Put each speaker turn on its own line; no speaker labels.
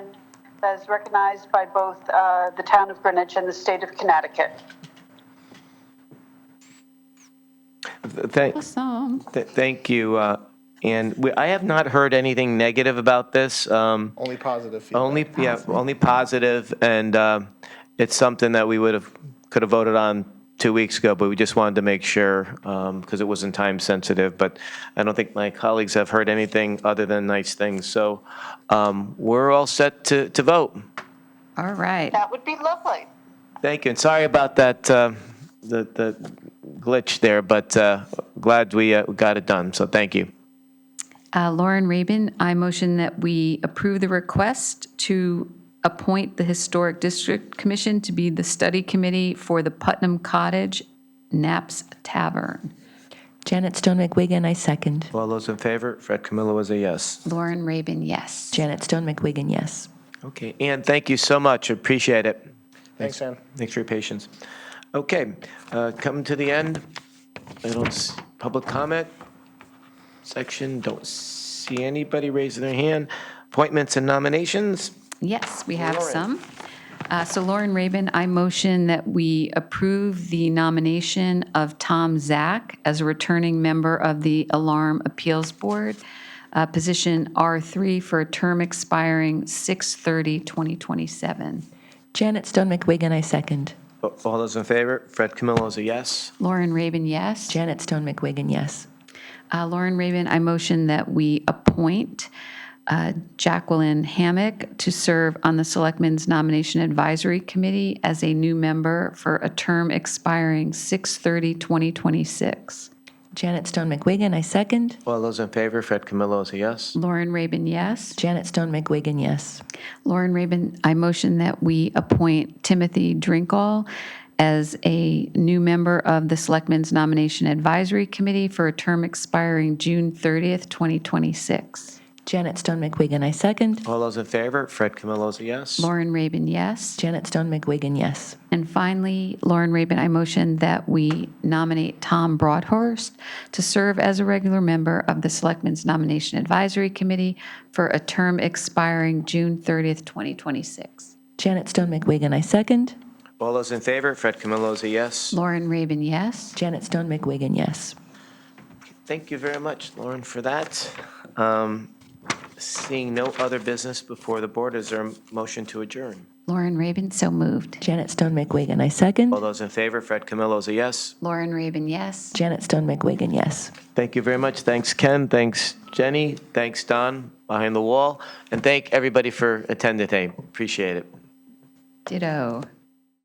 as recognized by both uh, the town of Greenwich and the state of Connecticut.
Thank,
Awesome.
th- thank you. uh, And we, I have not heard anything negative about this. um,
Only positive feedback.
Only, yeah, only positive, and um, it's something that we would have, could have voted on two weeks ago, but we just wanted to make sure, because it wasn't time sensitive, but I don't think my colleagues have heard anything other than nice things. So um, we're all set to, to vote.
All right.
That would be lovely.
Thank you, and sorry about that, uh, the the glitch there, but uh, glad we uh, got it done, so thank you.
Uh, Lauren Rabin, I motion that we approve the request to appoint the Historic District Commission to be the study committee for the Putnam Cottage Knapp's Tavern.
Janet Stone McWigan, I second.
All those in favor? Fred Camillo was a yes.
Lauren Rabin, yes.
Janet Stone McWigan, yes.
Okay, Ann, thank you so much, appreciate it.
Thanks, Ann.
Thanks for your patience. Okay, uh, come to the end. I don't, s- public comment section, don't see anybody raising their hand. Appointments and nominations?
Yes, we have
Lauren.
some. Uh, So Lauren Rabin, I motion that we approve the nomination of Tom Zach as a returning member of the Alarm Appeals Board, uh, position R3 for a term expiring 6/30/2027.
Janet Stone McWigan, I second.
A- Oh, All those in favor? Fred Camillo is a yes.
Lauren Raven, yes.
Janet Stone McWigan, yes.
Uh, Lauren Raven, I motion that we appoint uh, Jacqueline Hammack to serve on the Selectmen's Nomination Advisory Committee as a new member for a term expiring 6/30/2026.
Janet Stone McWigan, I second.
All those in favor? Fred Camillo is a yes.
Lauren Raven, yes.
Janet Stone McWigan, yes.
Lauren Raven, I motion that we appoint Timothy Drinkall as a new member of the Selectmen's Nomination Advisory Committee for a term expiring June 30th, 2026.
Janet Stone McWigan, I second.
All those in favor? Fred Camillo is a yes.
Lauren Raven, yes.
Janet Stone McWigan, yes.
And finally, Lauren Rabin, I motion that we nominate Tom Broadhurst to serve as a regular member of the Selectmen's Nomination Advisory Committee for a term expiring June 30th, 2026.
Janet Stone McWigan, I second.
All those in favor? Fred Camillo is a yes.
Lauren Rabin, yes.
Janet Stone McWigan, yes.
Thank you very much, Lauren, for that. Um, Seeing no other business before the board, is there a motion to adjourn?
Lauren Rabin, so moved.
Janet Stone McWigan, I second.
All those in favor? Fred Camillo is a yes.
Lauren Rabin, yes.
Janet Stone McWigan, yes.
Thank you very much. Thanks, Ken. Thanks, Jenny. Thanks, Don, behind the wall. And thank everybody for attending today. Appreciate it.
Ditto.